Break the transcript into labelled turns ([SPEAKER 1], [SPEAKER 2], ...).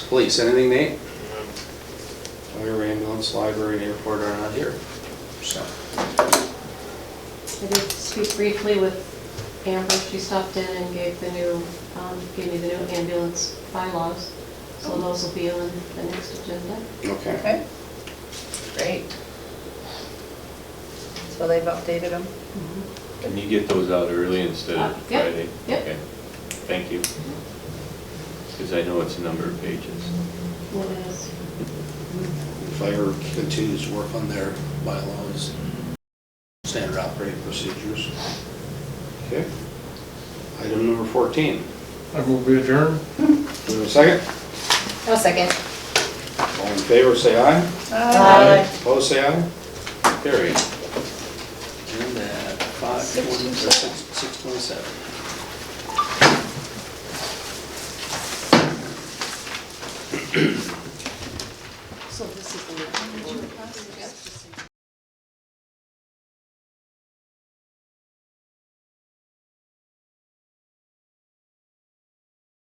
[SPEAKER 1] Police, anything, Nate? Um, Fire, ambulance, library, and airport are not here, so.
[SPEAKER 2] I did speak briefly with Amber, she stopped in and gave the new, um, gave me the new ambulance bylaws. So those will be on the next agenda.
[SPEAKER 1] Okay.
[SPEAKER 3] Okay, great. So they've updated them?
[SPEAKER 4] Can you get those out early instead
[SPEAKER 2] Uh,
[SPEAKER 4] of
[SPEAKER 2] yep,
[SPEAKER 4] Friday?
[SPEAKER 2] yep.
[SPEAKER 4] Okay, Thank you. Because I know it's a number of pages.
[SPEAKER 2] What else?
[SPEAKER 1] Fire continues to work on their bylaws, standard operating procedures. Okay. Item number 14.
[SPEAKER 5] I will be adjourned.
[SPEAKER 1] Do we have a second?
[SPEAKER 3] No second.
[SPEAKER 1] All in favor, say aye.
[SPEAKER 3] Aye.
[SPEAKER 1] Opposed, say aye. Carried. And at 5:20, or 6:27.
[SPEAKER 2] So this is the.